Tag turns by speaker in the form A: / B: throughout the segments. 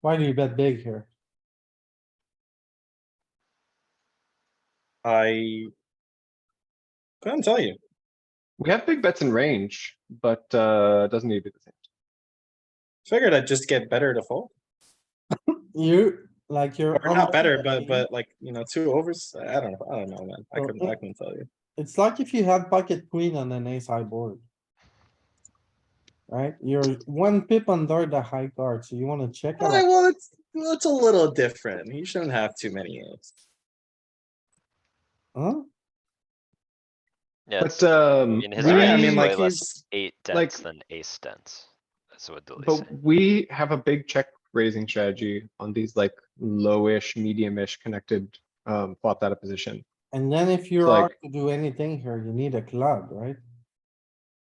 A: Why do you bet big here?
B: I couldn't tell you.
C: We have big bets in range, but uh, doesn't need to be the same.
B: Figured I'd just get better to fold.
A: You, like you're.
B: Or not better, but,
A: unlucky.
B: but like, you know, two overs, I don't know, I don't know, man. I
A: Well,
B: couldn't, I
A: it-
B: couldn't tell you.
A: It's like if you had pocket queen on an ace high board. Right? You're one pip under the high card, so you wanna check
B: All right,
A: out.
B: well, it's, well, it's a little different. You shouldn't have too many aims.
A: Huh?
D: Yeah,
C: But um,
D: mean, his
C: we-
B: Right, I
D: range
B: mean,
D: is
B: like
D: way less
B: he's,
D: eight
C: like-
D: dents than ace dents. That's what Dooley's
C: but
D: saying.
C: we have a big check raising strategy on these like lowish, medium-ish connected um, flopped out of position.
A: And then if you
C: Like-
A: are to do anything here, you need a club, right?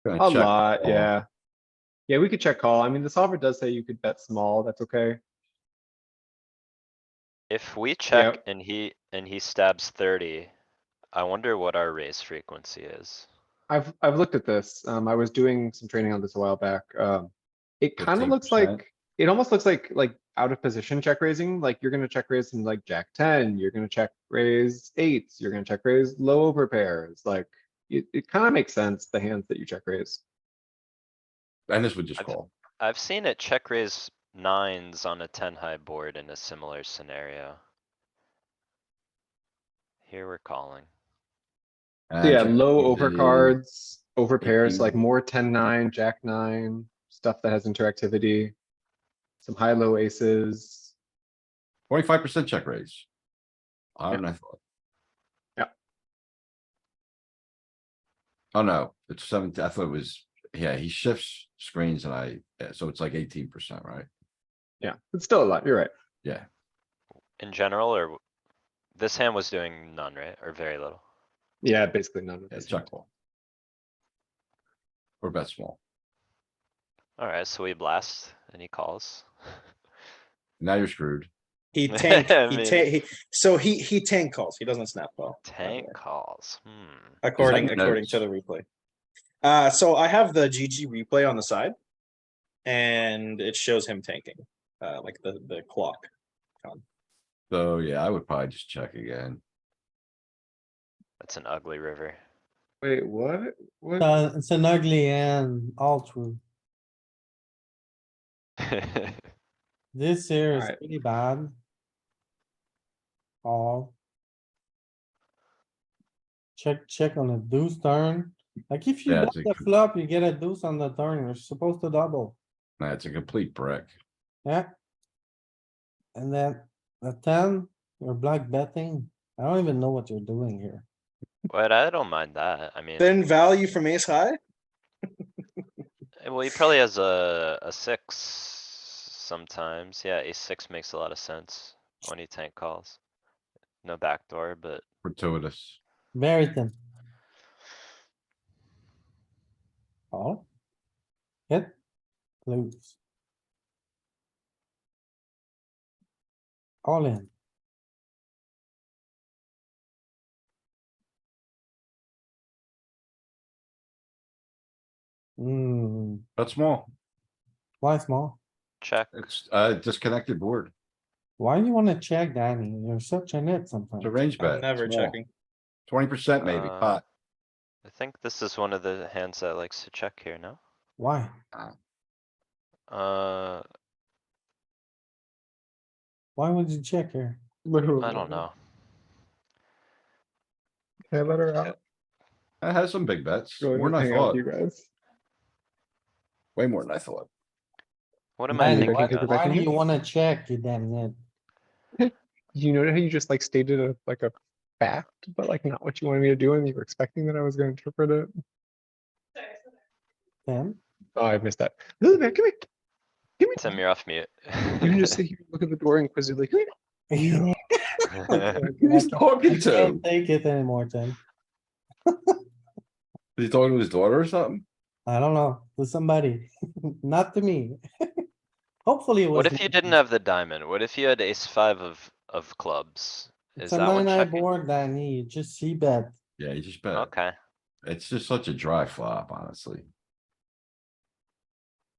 E: Gonna
C: A
E: check
C: lot,
E: call.
C: yeah. Yeah, we could check call. I mean, the solver does say you could bet small. That's okay.
D: If we check and he, and he stabs thirty, I wonder what our raise frequency is.
C: I've I've looked at this. Um, I was doing some training on this a while back. Um, it kind of looks
E: 15%.
C: like it almost looks like like out of position check raising. Like you're gonna check raise some like jack ten. You're gonna check raise eights. You're gonna check raise low over pairs. Like it, it kind of makes sense the hands that you check raise.
E: And this would just
D: I've-
E: call.
D: I've seen it check raise nines on a ten high board in a similar scenario. Here we're calling.
C: So
E: And
C: yeah,
E: check
C: low
E: raise
C: over
E: the-
C: cards, over pairs, like
E: 18.
C: more ten nine, jack nine stuff that has interactivity. Some high low aces.
E: Twenty-five percent check raise. I don't know.
C: Yeah.
E: Oh, no, it's seventeen, I thought it was, yeah, he shifts screens and I, yeah, so it's like eighteen percent, right?
C: Yeah, it's still a lot. You're right.
E: Yeah,
D: In general, or w- this hand was doing none, right? Or very little.
C: Yeah, basically none of
E: yeah,
C: this.
E: check call. Or bet small.
D: Alright, so we blast and he calls.
E: Now you're screwed.
B: He tanked,
D: I
B: he
D: mean-
B: ta- he, so he, he tank calls. He doesn't snap call. by the way.
C: Oh,
D: Tank calls, hmm.
B: According,
E: your
B: according to the replay. Uh, so I have the GG replay on the side. And it shows him tanking, uh, like the, the clock.
E: So, yeah, I would probably just check again.
D: That's an ugly river.
C: Wait, what? What?
A: Uh, it's an ugly end, all true. This here is
C: Alright.
A: pretty bad. All. Check, check on a deuce turn. Like if you
E: Yeah,
A: bet
E: it's a
A: the
E: good-
A: flop, you get a deuce on the turn. You're supposed to double,
E: Nah, it's a complete brick.
A: yeah? And then the ten, you're black betting. I don't even know what you're doing here.
D: But I don't mind that, I mean,
B: Then value from ace high?
D: eh, well, he probably has a, a six sometimes, yeah, ace six makes a lot of sense when he tank calls. No backdoor, but
E: Fortuitous.
A: Very thin. Oh. Hit. Lose. All in. Hmm,
E: That's small.
A: why small?
D: check,
E: It's uh disconnected board.
A: Why do you wanna check, Danny? You're such a nit sometimes.
E: It's a range
B: I'm
E: bet.
B: never checking.
E: Twenty percent maybe.
D: Uh,
E: pot.
D: I think this is one of the hands that likes to check here, no?
A: Why?
D: Uh,
A: Why would you check here?
D: I
C: Mm-hmm.
D: don't know,
C: Can I let her out?
E: It has some big bets.
C: Go in
E: More
C: and
E: than I
C: hang out
E: thought.
C: with you guys.
E: Way more than I thought.
D: what am I
A: Danny,
C: Danny,
D: thinking
A: why-
C: take it
D: of?
C: back
A: Why
C: in
A: do
C: here?
A: you wanna check, you damn nit?
C: You know how you just like stated a, like a fact, but like not what you wanted me to do and you were expecting that I was gonna interpret it?
A: Ten?
C: Oh, I missed that. Lily Bear, come here. Come here.
D: Tim, you're off mute.
C: You can just sit here, and look at the door inquisitively. Come
A: You
C: here. Who's talking
A: can't take it anymore, Tim.
E: Is he talking to his daughter or something?
A: I don't know, to somebody, not to me. Hopefully it was.
D: What if you didn't have the diamond? What if you had ace five of, of clubs? Is
A: It's a
D: that one
A: nine eye
D: checking?
A: board, Danny, you just see bet.
E: Yeah, he just bet.
D: Okay.
E: It's just such a dry flop, honestly.